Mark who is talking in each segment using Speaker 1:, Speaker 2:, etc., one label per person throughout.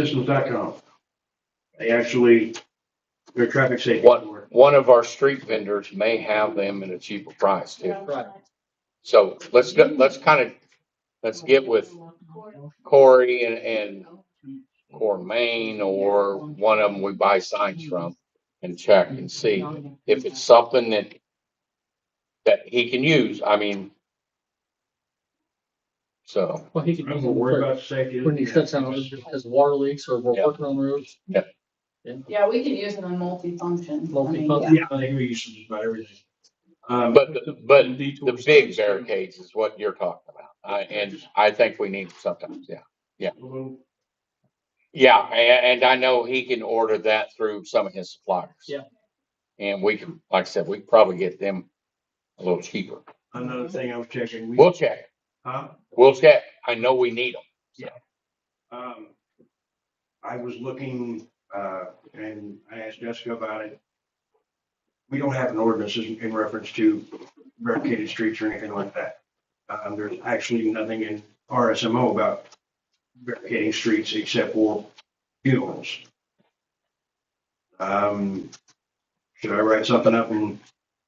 Speaker 1: trafficsystems.com. They actually, they're traffic safety.
Speaker 2: What? One of our street vendors may have them at a cheaper price too.
Speaker 3: Right.
Speaker 2: So let's, go- let's kind of, let's get with Corey and, and Cormaine or one of them we buy signs from and check and see if it's something that, that he can use. I mean, so,
Speaker 3: Well, he could
Speaker 1: I'm
Speaker 3: use
Speaker 1: more
Speaker 3: them
Speaker 1: worried
Speaker 3: for,
Speaker 1: about safety.
Speaker 3: when he shuts down his his water leaks or we're
Speaker 2: Yeah.
Speaker 3: working on roofs.
Speaker 2: Yeah.
Speaker 4: Yeah, we can use it on multi-function. I mean,
Speaker 3: Multi-function.
Speaker 1: Yeah, I think we use just about everything. Um,
Speaker 2: but, but
Speaker 1: detour
Speaker 2: the big
Speaker 1: signs.
Speaker 2: barricades is what you're talking about. I and I think we need them sometimes, yeah. Yeah, a- and I know he can order that through some of his suppliers.
Speaker 3: Yeah.
Speaker 2: And we can, like I said, we can probably get them a little cheaper.
Speaker 1: Another thing I was checking. we-
Speaker 2: We'll check,
Speaker 1: Huh?
Speaker 2: we'll check. I know we need them.
Speaker 1: Um, I was looking, uh, and I asked Jessica about it. We don't have an ordinance in in reference to barricaded streets or anything like that. Um, there's actually nothing in RSMO about barricading streets except for funerals. Um, should I write something up and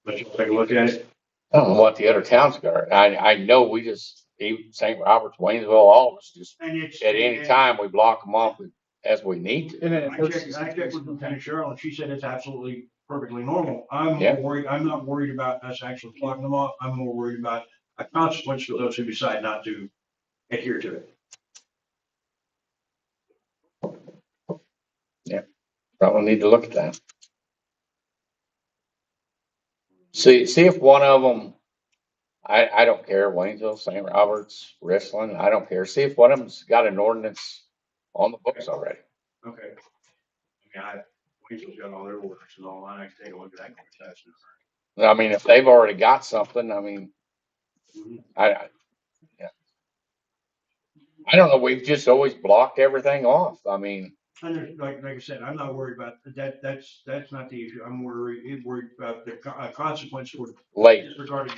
Speaker 1: let you take a look at it?
Speaker 2: I don't know what the other towns got. I, I know we just, even St. Roberts, Waynesville, all of us, just
Speaker 1: And it's.
Speaker 2: at any time, we block them off as we need to.
Speaker 3: And then
Speaker 1: I
Speaker 3: it works.
Speaker 1: checked, I checked with Lieutenant Cheryl and she said it's absolutely perfectly normal. I'm
Speaker 2: Yeah.
Speaker 1: worried, I'm not worried about us actually plugging them off. I'm more worried about a consequence for those who decide not to adhere to it.
Speaker 2: Probably need to look at that. See, see if one of them, I, I don't care, Waynesville, St. Roberts, Richland, I don't care. See if one of them's got an ordinance on the books already.
Speaker 1: Okay. I mean, I, Waynesville's got all their orders and all, I can take a look at that. quick test.
Speaker 2: I mean, if they've already got something, I mean,
Speaker 1: Mhm.
Speaker 2: I, I, yeah. I don't know, we've just always blocked everything off. I mean,
Speaker 1: And there's, like, like I said, I'm not worried about that, that's, that's not the issue. I'm worried, worried about the co- uh, consequence for
Speaker 2: late,
Speaker 1: disregarding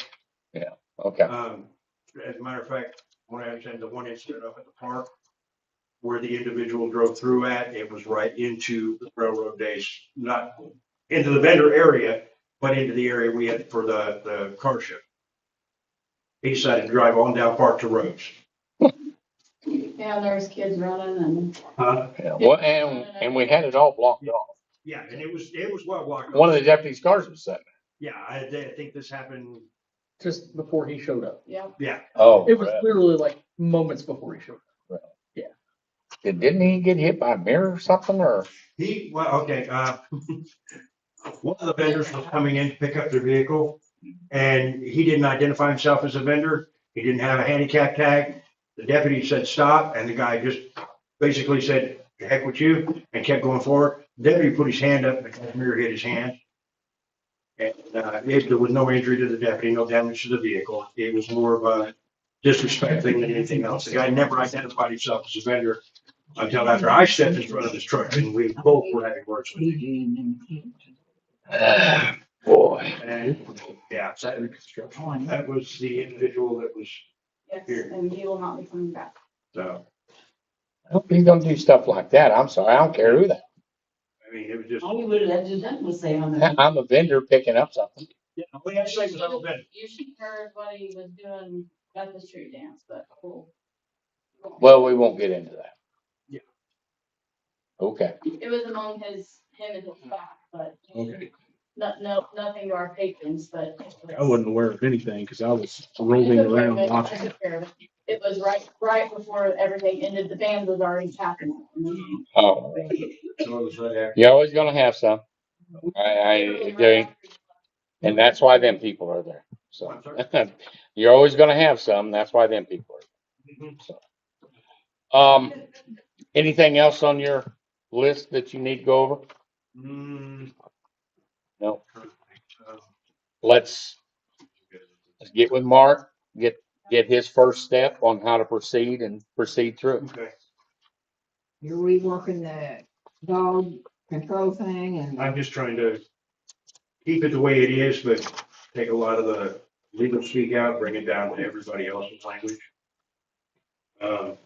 Speaker 2: okay,
Speaker 1: Um, as a matter of fact, when I attended the one incident up at the park where the individual drove through at, it was right into the railroad days, not into the vendor area, but into the area we had for the, the car show. He decided to drive on down Park to Rose.
Speaker 4: Yeah, and there's kids running and.
Speaker 1: Uh,
Speaker 2: yeah, well, and, and we had it all blocked off.
Speaker 1: yeah, and it was, it was well blocked.
Speaker 2: One of the deputies' cars was sitting.
Speaker 1: Yeah, I, I think this happened,
Speaker 3: Just before he showed up.
Speaker 4: Yeah.
Speaker 1: yeah.
Speaker 2: Oh.
Speaker 3: It was literally like moments before he showed up.
Speaker 2: Did- Didn't he get hit by a mirror or something or?
Speaker 1: He, well, okay, uh, one of the vendors was coming in to pick up their vehicle and he didn't identify himself as a vendor. He didn't have a handicap tag. The deputy said, stop, and the guy just basically said, "The heck with you, and kept going forward. Deputy put his hand up, and the mirror hit his hand. And, uh, it, there was no injury to the deputy, no damage to the vehicle. It was more of a disrespect thing than anything else. The guy never identified himself as a vendor until after I stepped in front of his truck and we both were having words with him.
Speaker 2: Boy.
Speaker 1: And, yeah, that, that was the individual that was,
Speaker 4: Yes,
Speaker 1: Here.
Speaker 4: and he will not be coming back.
Speaker 1: so,
Speaker 2: He's gonna do stuff like that. I'm sorry. I don't care who that.
Speaker 1: I mean, it was just.
Speaker 5: Only would that just, that was say on the.
Speaker 2: I'm a vendor picking up something.
Speaker 1: We had to say it was all bad.
Speaker 4: You should heard what he was doing at the street dance, but cool.
Speaker 2: Well, we won't get into that.
Speaker 1: Yeah.
Speaker 2: Okay.
Speaker 4: It was among his, him and his staff, but. No, no, nothing to our patrons, but.
Speaker 6: I wasn't aware of anything because I was rolling around watching.
Speaker 4: It was right, right before everything ended. The band was already tapping.
Speaker 2: Oh,
Speaker 1: So it was right after.
Speaker 2: you're always gonna have some. I, I, they- and that's why them people are there. So.
Speaker 1: I'm sorry.
Speaker 2: You're always gonna have some. That's why them people are. there. So. Um, anything else on your list that you need to go over?
Speaker 1: Hmm.
Speaker 2: No.
Speaker 1: Um,
Speaker 2: Let's Let's get with Mark, get, get his first step on how to proceed and proceed through.
Speaker 1: Okay,
Speaker 5: You're reworking that dog control thing and
Speaker 1: I'm just trying to keep it the way it is, but take a lot of the legal speak out, bring it down to everybody else's language. Um,